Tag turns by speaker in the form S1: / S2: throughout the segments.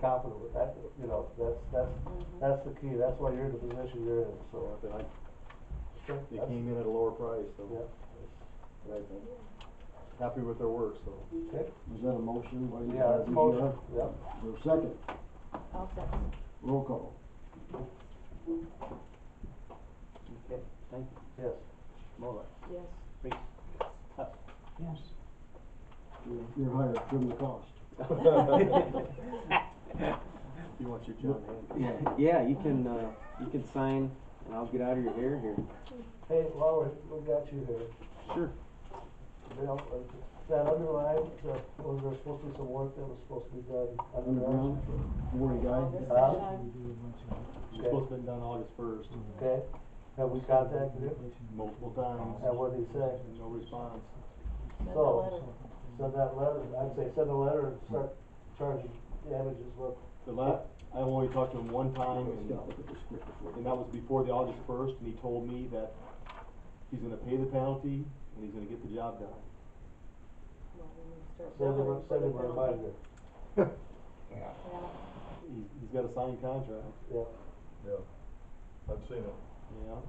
S1: confident with that, you know, that's, that's, that's the key, that's why you're in the position you're in, so.
S2: But I-
S1: Sure.
S2: They came in at a lower price, so.
S1: Yeah.
S2: But I think, happy with their work, so.
S1: Okay,
S3: Was that a motion? by the-
S1: yeah,
S3: by
S1: it's
S3: the
S1: motion,
S3: DGR?
S1: yep.
S3: Your second,
S4: I'll second.
S3: roll call.
S5: Okay, thank you.
S1: Yes,
S5: Moller,
S4: Yes.
S5: Reese. Huss.
S3: Yes. You're, you're hired, trim the cost.
S2: You want your John Handy.
S5: Yeah, you can, uh, you can sign and I'll get out of your hair here.
S1: hey, Laura, we got you here.
S5: Sure.
S1: Bill, uh, that underline, uh, was there supposed to be some work that was supposed to be done underground?
S2: Mm-hmm.
S3: Underground, Maury guy.
S4: August
S1: Uh,
S4: second.
S2: It's supposed to have been done August first,
S1: Okay, have we Mm-hmm. contacted
S2: Mm-hmm.
S1: him?
S2: multiple times.
S1: And what did he say?
S2: No response.
S4: Send a
S1: so-
S4: letter.
S1: Send that letter, I'd say send a letter and start charging damages, what,
S2: The la, I only talked to him one time
S3: Let's
S2: and,
S3: go look at the script before.
S2: and that was before the August first, and he told me that he's gonna pay the penalty and he's gonna get the job done.
S4: Well, we need to start
S1: send him,
S4: billing for
S1: send
S4: the
S1: him a
S4: penalty.
S1: reminder,
S4: Yeah.
S2: He's, he's got a signed contract,
S1: yeah.
S6: I've seen it,
S2: you know?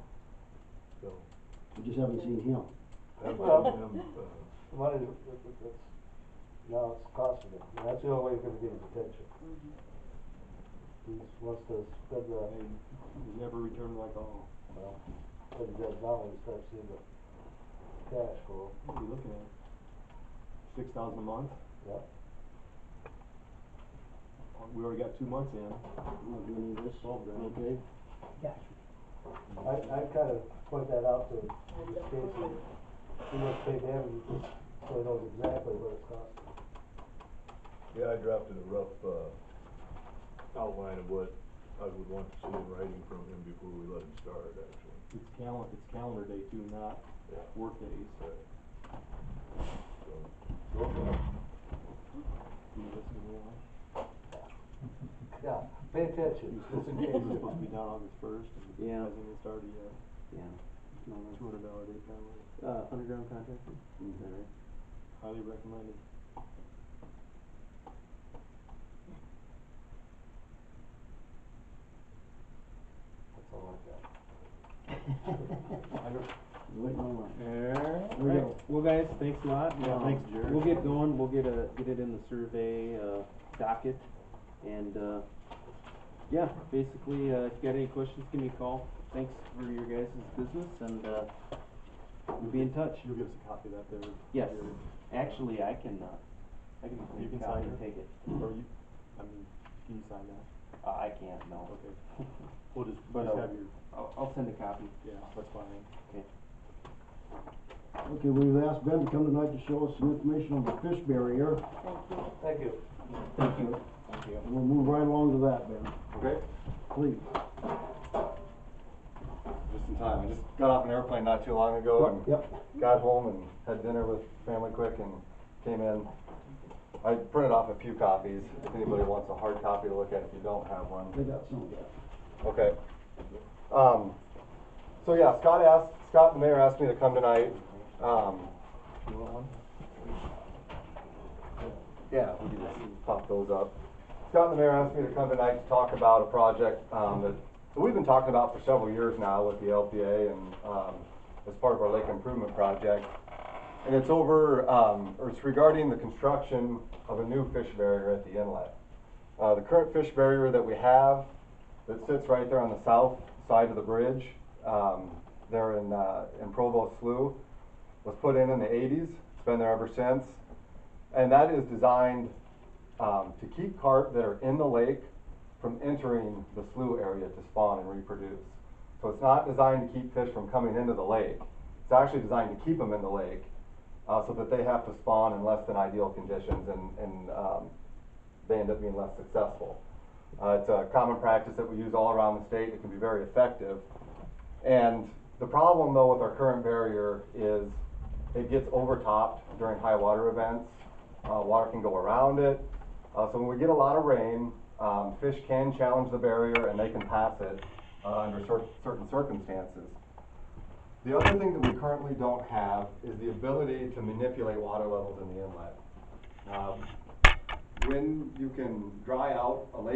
S6: so.
S3: We just haven't seen him.
S6: I've
S1: Well-
S6: seen him, uh,
S1: The money, that- that- that- that's, now it's costing him, and that's the only way you're gonna get his attention. He just wants to spend
S2: I
S1: the,
S2: mean, he's never returned my call.
S1: well, what he does now, he starts seeing the cash flow,
S2: What are you looking at? Six thousand a month?
S1: yeah.
S2: We already got two months in.
S3: I'm not doing any of this,
S2: Twelve grand.
S3: okay?
S1: I, I kinda point that out to
S4: uh,
S1: Casey, he must pay damages, so he knows exactly what it's costing.
S6: yeah, I drafted a rough, uh, outline of what I would want to see in writing from him before we let him start, actually.
S2: It's calendar, it's calendar day too, not
S6: Yeah.
S2: work days.
S6: So,
S2: Do you listen to me?
S1: Yeah, pay attention, just in
S2: It was
S1: case.
S2: supposed to be done August first, and it
S5: Yeah.
S2: hasn't even started yet.
S5: Yeah. No, no.
S2: Two hundred dollar day penalty,
S5: Uh, underground contractor? Is
S3: Mm-hmm.
S5: that right?
S2: highly recommended.
S1: That's all I got.
S2: I don't-
S3: Waiting on one. We
S5: Alright,
S3: go.
S5: well guys, thanks a lot.
S2: Yeah,
S5: Um,
S2: thanks, Jared.
S5: We'll get going, we'll get a, get it in the survey, uh, docket, and, uh, yeah, basically, uh, if you got any questions, give me a call. Thanks for your guys' business, and, uh, we'll be in touch.
S2: You'll give us a copy of that there.
S5: Yes,
S2: Jared.
S5: actually, I can, uh, I can
S2: You
S5: make a
S2: can
S5: copy
S2: sign
S5: and
S2: it.
S5: take it.
S2: Or you, I mean, can you sign that?
S5: Uh, I can't, no.
S2: Okay. We'll just,
S5: But,
S2: just
S5: uh,
S2: have your,
S5: I'll, I'll send a copy.
S2: yeah, that's fine.
S3: Okay, we've asked Ben to come tonight to show us some information on the fish barrier.
S4: Thank you.
S1: Thank you.
S3: Thank you. And we'll move right along to that, Ben,
S7: Okay,
S3: please.
S7: just in time. I just got off an airplane not too long ago
S3: Yep.
S7: and got home and had dinner with family quick and came in. I printed off a few copies, if anybody wants a hard copy to look at if you don't have one.
S3: They got some of that.
S7: Okay. Um, so yeah, Scott asked, Scott, the mayor asked me to come tonight. Um, you want one? Yeah, we can just pop those up. Scott, the mayor asked me to come tonight to talk about a project, um, that that we've been talking about for several years now with the LPA and, um, as part of our lake improvement project. And it's over, um, or it's regarding the construction of a new fish barrier at the inlet. Uh, the current fish barrier that we have that sits right there on the south side of the bridge, um, there in, uh, in Provo Slough, was put in in the eighties, it's been there ever since. And that is designed, um, to keep carp that are in the lake from entering the slough area to spawn and reproduce. So it's not designed to keep fish from coming into the lake, it's actually designed to keep them in the lake, uh, so that they have to spawn in less than ideal conditions and, and, um, they end up being less successful. Uh, it's a common practice that we use all around the state. It can be very effective. And the problem, though, with our current barrier is it gets overtopped during high water events. Uh, water can go around it. Uh, so when we get a lot of rain, um, fish can challenge the barrier and they can pass it uh, under cer- certain circumstances. The other thing that we currently don't have is the ability to manipulate water levels in the inlet. Um, when you can dry out a lake